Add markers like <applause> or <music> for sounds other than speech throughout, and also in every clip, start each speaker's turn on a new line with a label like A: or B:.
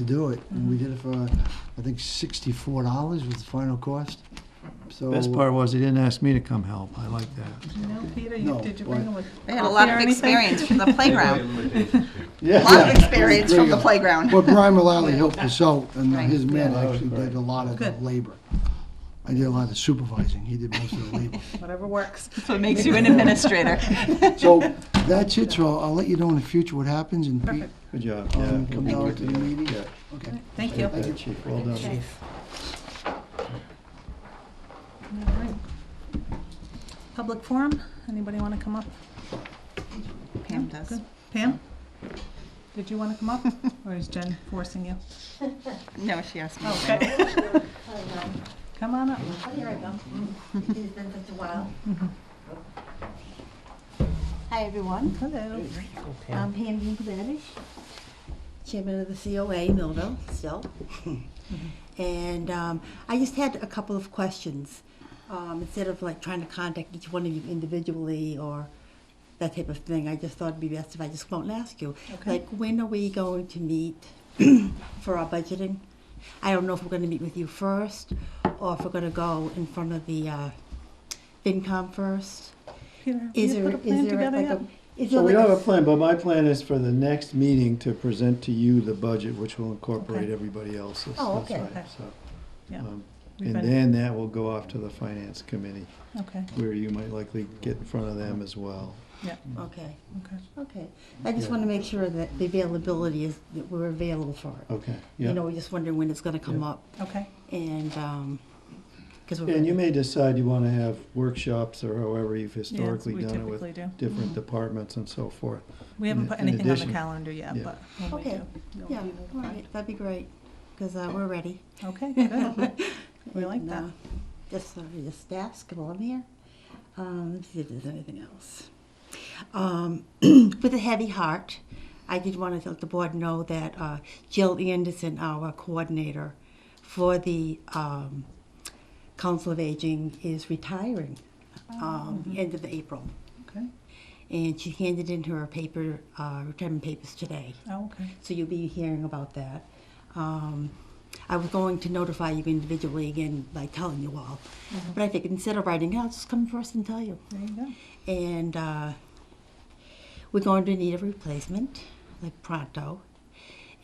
A: to do it. And
B: Mm-hmm.
A: we did it for, I think, sixty-four dollars was the final cost. So
C: Best part was, he didn't ask me to come help, I like that.
D: No, Peter,
A: No,
D: you, did you bring a?
B: They had a lot
D: coffee or
B: of
D: anything?
B: experience from the playground.
A: Yeah.
B: A lot
A: Yeah.
B: of experience from the playground.
A: Well, Brian Mullally helped us out, and
B: Right.
A: his man
C: Yeah.
A: actually did a lot of the
D: Good.
A: labor. I did a lot of supervising, he did most of the labor.
D: <laughs> Whatever works.
B: <laughs> That's what makes you an administrator.
A: So, that's it, so I'll let you know in the future what happens, and Pete,
D: Perfect.
C: Good job.
A: um,
C: Yeah.
A: come down to the meeting. Okay.
D: Thank you.
C: Thank you, Chief, well done.
D: All right. Public forum, anybody want to come up?
B: <laughs> Pam does.
D: Good. Pam? Did you want to come
B: <laughs>
D: up, or is Jen forcing you?
B: No, she asked me.
D: Okay,
E: Oh,
D: come on up.
E: here I go. <laughs> It's been such a while. Hi, everyone.
D: Hello.
E: I'm Hamden Kavanish, chairman of the COA Millville, still.
D: Mm-hmm.
E: And um, I just had a couple of questions. Um, Instead of like trying to contact each one of you individually or that type of thing, I just thought it'd be best if I just won't ask you.
D: Okay.
E: Like, when are we going to meet <clears throat> for our budgeting? I don't know if we're going to meet with you first or if we're going to go in front of the uh, FinCom first.
D: Peter, have
E: Is
D: you
E: there,
D: put a
E: is
D: plan
E: there
D: together
E: like
D: yet?
E: a? is there
C: So we
E: like
C: don't
E: a-
C: have a plan, but my plan is for the next meeting to present to you the budget, which will incorporate
D: Okay.
C: everybody else's.
E: Oh,
C: That's
E: okay.
C: right, so,
D: Yeah.
C: um,
D: We've
C: And
D: been-
C: then that will go off to the finance committee,
D: Okay,
C: where you might likely get in front of them as well.
E: Okay,
D: okay.
E: okay. I just
C: Yeah.
E: want to make sure that the availability is, that we're available for it.
C: Okay, Oh,
E: You
C: yeah.
E: know, we're just wondering when it's going to come
C: Yeah.
E: up
D: Okay,
E: and, um, because we're.
C: And you may decide you wanna have workshops or however you've historically
D: we
C: done it with
D: typically do.
C: different departments and so forth.
D: we haven't put
C: in
D: anything on the
C: addition-
D: calendar yet,
C: Yeah.
D: but when we
E: Okay.
D: do. you'll
E: Yeah,
D: be
E: all
D: notified.
E: right, that'd be great, because we're ready.
D: Okay, good. <laughs> We like
E: And,
D: that.
E: uh, Just, sorry, just ask while I'm here. Um, let's see if there's anything else. Um, <clears throat> with a heavy heart, I did want to let the board know that uh, Jill Anderson, our coordinator for the um, Council of Aging, is retiring um,
D: Oh.
E: end of April.
D: Okay,
E: And she handed in her paper, uh, retirement papers today
D: oh, okay,
E: so you'll be hearing about that. Um, I was going to notify you individually again by telling you all, but I think instead of writing, I'll just come first and tell you.
D: there you go.
E: And uh, we're going to need a replacement, like pronto.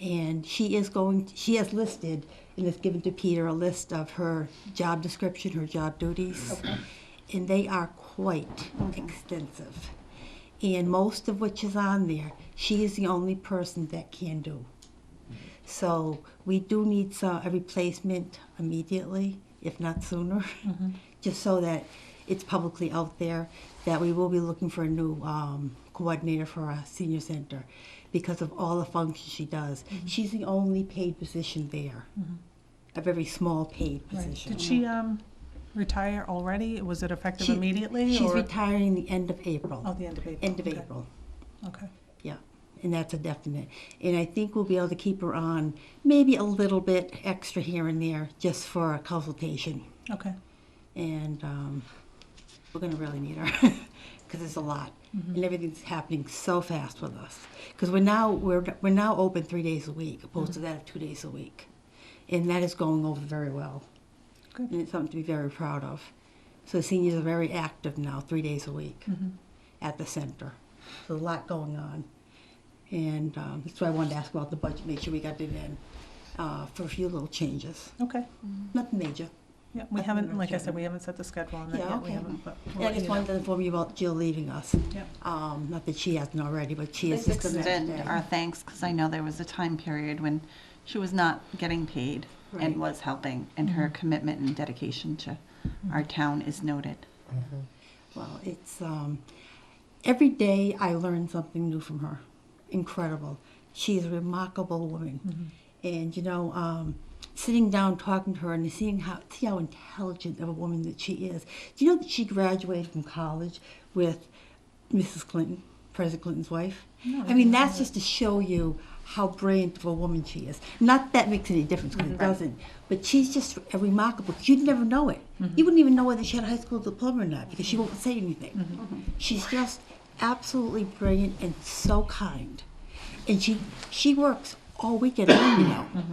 E: And she is going. She has listed and has given to Peter a list of her job description, her job duties, and they are quite extensive. And most of which is on there, she is the only person that can do. So we do need so- a replacement immediately, if not sooner,
D: Mm-hmm.
E: <laughs> just so that it's publicly out there that we will be looking for a new um, coordinator for our senior center because of all the functions she does.
D: Mm-hmm.
E: She's the only paid position there, a very small paid
D: Right.
E: position.
D: Did she, um, retire already? Was it effective
E: She-
D: immediately
E: She's
D: or?
E: retiring the end of April.
D: Oh, the end of April.
E: End of
D: Okay.
E: April.
D: Okay,
E: Yeah, and that's a definite. And I think we'll be able to keep her on maybe a little bit extra here and there just for a consultation.
D: okay,
E: And um, we're going to really need her <laughs> because it's a lot. And everything's happening so fast with us. Because we're now, we're, we're now open three days a week opposed to that of two days a week. And that is going over very well.
D: Good.
E: And it's something to be very proud of. So the seniors are very active now, three days a week
D: Mm-hmm.
E: at the center. So a lot going on. And um, that's why I wanted to ask about the budget, make sure we got it in uh, for a few little changes.
D: okay.
E: Nothing major.
D: Yeah, we
E: I
D: haven't,
E: think
D: like I
E: that's
D: said,
E: it.
D: we haven't set the schedule on that
E: Yeah,
D: yet, we
E: okay.
D: haven't, but. we'll
E: Yeah, I
D: let
E: just
D: you know.
E: wanted to inform you about Jill leaving us.
D: Yep.
E: Um, not that she hasn't already, but she is
B: Please
E: just gonna.
B: extend our thanks, because I know there was a time period when she was not getting paid
E: Right.
B: and was helping, and her commitment and dedication to our town is noted.
E: Well, it's, um, every day I learn something new from her. Incredible. She's a remarkable woman.
D: Mm-hmm.
E: And, you know, um, sitting down talking to her and seeing how, see how intelligent of a woman that she is. Do you know that she graduated from college with Mrs. Clinton, President Clinton's wife? I mean, that's just to show you how brilliant of a woman she is. Not that makes any difference because it doesn't, but she's just a remarkable. You'd never know it. You wouldn't even know whether she had a high school diploma or not because she won't say anything. She's just absolutely brilliant and so kind, and she she works all week at home, you know.